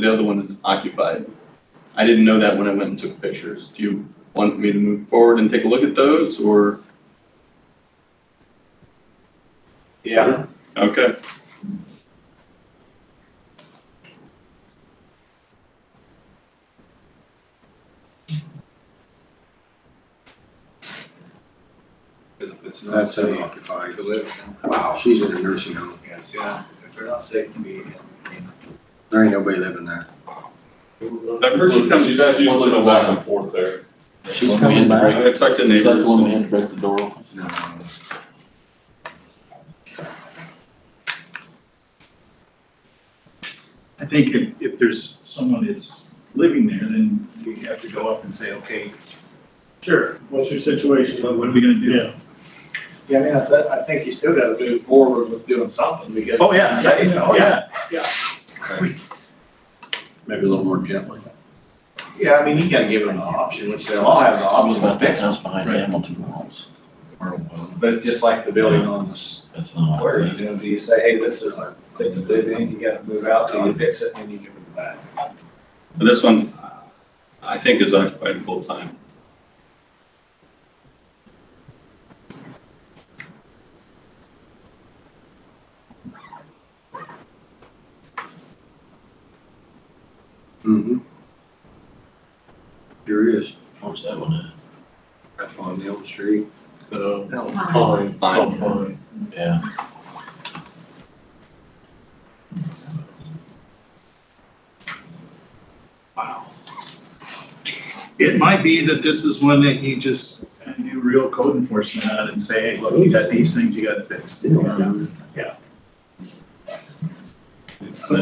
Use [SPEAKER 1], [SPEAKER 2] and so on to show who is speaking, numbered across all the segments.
[SPEAKER 1] The other one is occupied. I didn't know that when I went and took pictures. Do you want me to move forward and take a look at those or?
[SPEAKER 2] Yeah.
[SPEAKER 1] Okay.
[SPEAKER 2] It's
[SPEAKER 3] That's unoccupied.
[SPEAKER 2] To live.
[SPEAKER 3] Wow, she's in a nursing home.
[SPEAKER 2] Yes, yeah. If they're not safe to be in.
[SPEAKER 3] There ain't nobody living there.
[SPEAKER 1] That person comes
[SPEAKER 4] You guys
[SPEAKER 1] once
[SPEAKER 4] usually
[SPEAKER 1] in a
[SPEAKER 4] go back
[SPEAKER 1] while.
[SPEAKER 4] and forth there.
[SPEAKER 3] She's coming back.
[SPEAKER 1] I talked to
[SPEAKER 5] Is that the one we
[SPEAKER 1] neighbors.
[SPEAKER 5] had to break the door open?
[SPEAKER 3] No.
[SPEAKER 6] I think if, if there's someone that's living there, then we have to go up and say, okay,
[SPEAKER 7] Sure, what's your situation?
[SPEAKER 6] what what are we gonna do?
[SPEAKER 7] Yeah.
[SPEAKER 2] Yeah, I mean, I, bet- I think you still gotta move forward with doing something because.
[SPEAKER 6] Oh, yeah,
[SPEAKER 2] Safe,
[SPEAKER 6] yeah, yeah.
[SPEAKER 3] Maybe a little more gently.
[SPEAKER 2] Yeah, I mean, you gotta give them an option, which they'll all have an option to
[SPEAKER 5] About that
[SPEAKER 2] fix.
[SPEAKER 5] house behind
[SPEAKER 6] Right.
[SPEAKER 5] Hamilton Walls.
[SPEAKER 2] But it's just like the building on the
[SPEAKER 5] That's not.
[SPEAKER 2] square, you know, do you say, hey, this is a thing to live in, you gotta move out till you fix it, and you give it back.
[SPEAKER 1] But This one, I think is occupied full time.
[SPEAKER 3] Mm-hmm. Sure is.
[SPEAKER 5] Where's that one
[SPEAKER 3] That's on the old street.
[SPEAKER 4] So,
[SPEAKER 1] Fine.
[SPEAKER 6] Um,
[SPEAKER 5] at? Yeah.
[SPEAKER 6] Wow. It might be that this is one that you just uh, do real code enforcement on and say, hey, look, you got these things you gotta fix.
[SPEAKER 7] I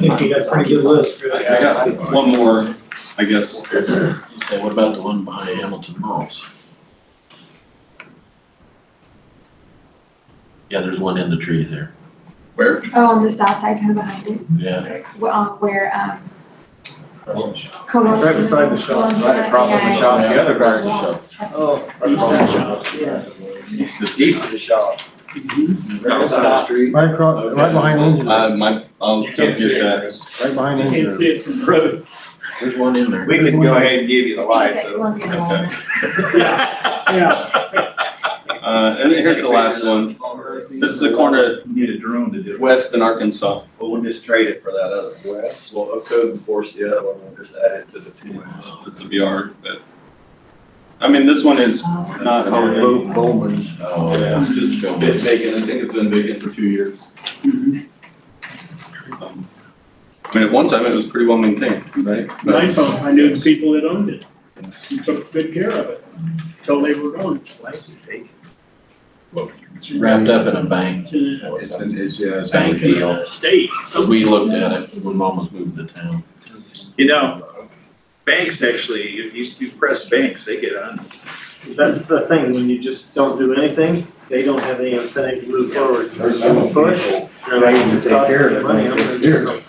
[SPEAKER 7] think you got a pretty good list.
[SPEAKER 1] I I got one more, I guess.
[SPEAKER 5] You say, what about the one behind Hamilton Walls? Yeah, there's one in the tree there.
[SPEAKER 1] Where?
[SPEAKER 8] Oh, on the south side, kind of behind it,
[SPEAKER 5] Yeah.
[SPEAKER 8] wh- uh, where, um.
[SPEAKER 2] Right beside the shop, right across from the shop, the other
[SPEAKER 5] Across
[SPEAKER 2] garage.
[SPEAKER 5] the shop.
[SPEAKER 7] Oh.
[SPEAKER 2] East of, east of the shop.
[SPEAKER 3] Right
[SPEAKER 2] South
[SPEAKER 3] beside the
[SPEAKER 2] side.
[SPEAKER 3] street, right across, right behind Angela,
[SPEAKER 1] Uh, my, I'll go get that.
[SPEAKER 3] right behind
[SPEAKER 7] You can't
[SPEAKER 3] Angela.
[SPEAKER 7] see it from the road.
[SPEAKER 5] There's one in there.
[SPEAKER 2] We can go ahead and give you the light, though.
[SPEAKER 1] Okay.
[SPEAKER 7] Yeah.
[SPEAKER 1] Uh, and here's the last one. This is the corner
[SPEAKER 6] You Need a drone to do it.
[SPEAKER 1] west in Arkansas.
[SPEAKER 2] But we'll just trade it for that other one. Well, a code enforce the other one, we'll just add it to the two.
[SPEAKER 1] It's a VR, but, I mean, this one is not hard.
[SPEAKER 3] Bo- Bowman's.
[SPEAKER 5] Oh, yeah.
[SPEAKER 1] It's just been vacant, I think it's been vacant for two years.
[SPEAKER 6] Mm-hmm.
[SPEAKER 1] Um, I mean, at one time it was pretty well maintained, right? But-
[SPEAKER 7] Nice one. I knew the people that owned it. You took good care of it until they were gone.
[SPEAKER 5] It's Wrapped up in a bank,
[SPEAKER 7] It's in
[SPEAKER 3] It's, it's, yeah, it's.
[SPEAKER 5] bank deal.
[SPEAKER 6] Uh,
[SPEAKER 7] a state.
[SPEAKER 5] So we looked at it when mom was moving to town.
[SPEAKER 6] You know, banks actually, if you, you press banks, they get on.
[SPEAKER 7] That's the thing, when you just don't do anything, they don't have any incentive to move forward.
[SPEAKER 3] There's some people trying to take care of it.
[SPEAKER 7] Money, I'm gonna do something.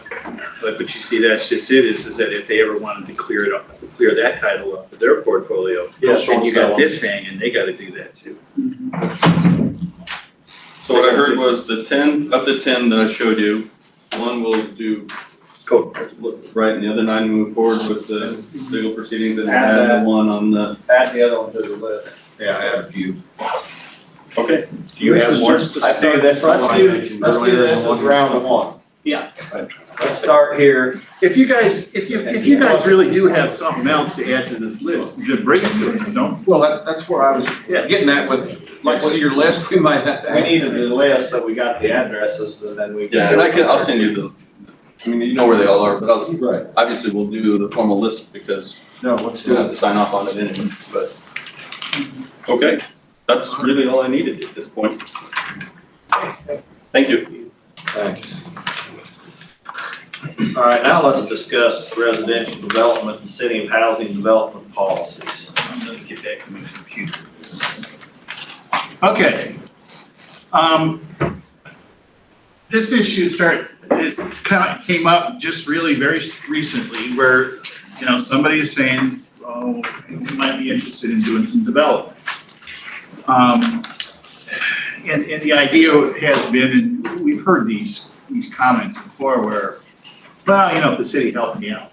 [SPEAKER 6] But, but you see, that's just it, is, is that if they ever wanted to clear it up, clear that title up for their portfolio,
[SPEAKER 7] Yeah.
[SPEAKER 6] then you got this thing, and they gotta do that too.
[SPEAKER 1] So what I heard was the ten, of the ten that I showed you, one will do
[SPEAKER 6] Cool.
[SPEAKER 1] right, and the other nine move forward with the legal proceedings and add the one on the.
[SPEAKER 2] Add the other one to the list.
[SPEAKER 3] Yeah, I have a few.
[SPEAKER 1] Okay.
[SPEAKER 2] Do you have more? I think that's, let's
[SPEAKER 3] one I
[SPEAKER 2] do,
[SPEAKER 3] mentioned
[SPEAKER 2] let's do
[SPEAKER 3] earlier,
[SPEAKER 2] this
[SPEAKER 3] the
[SPEAKER 2] as
[SPEAKER 3] one-
[SPEAKER 2] round one.
[SPEAKER 7] Yeah.
[SPEAKER 2] Let's start here.
[SPEAKER 6] If you guys, if you, if you guys really do have something else to add to this list, you bring it to us, don't?
[SPEAKER 3] Well, that, that's where I was getting at with, like, see your list, we might have
[SPEAKER 2] We needed the list, so we got the addresses, and then we.
[SPEAKER 1] Yeah, and I can, I'll send you the, I mean, you know where they all are, but I'll,
[SPEAKER 3] Right.
[SPEAKER 1] obviously we'll do the formal list because
[SPEAKER 3] No, let's
[SPEAKER 1] we'll
[SPEAKER 3] do
[SPEAKER 1] have
[SPEAKER 3] it.
[SPEAKER 1] to sign off on it anyway, but. Okay, that's really all I needed at this point. Thank you.
[SPEAKER 3] Thanks.
[SPEAKER 2] All right, now let's discuss residential development and city of housing development policies.
[SPEAKER 6] I'm gonna get back to my computer. Okay. Um, this issue start, it kind of came up just really very recently where, you know, somebody is saying, oh, we might be interested in doing some development. Um, and, and the idea has been, and we've heard these, these comments before where
[SPEAKER 7] well, you know, if the city helped me out.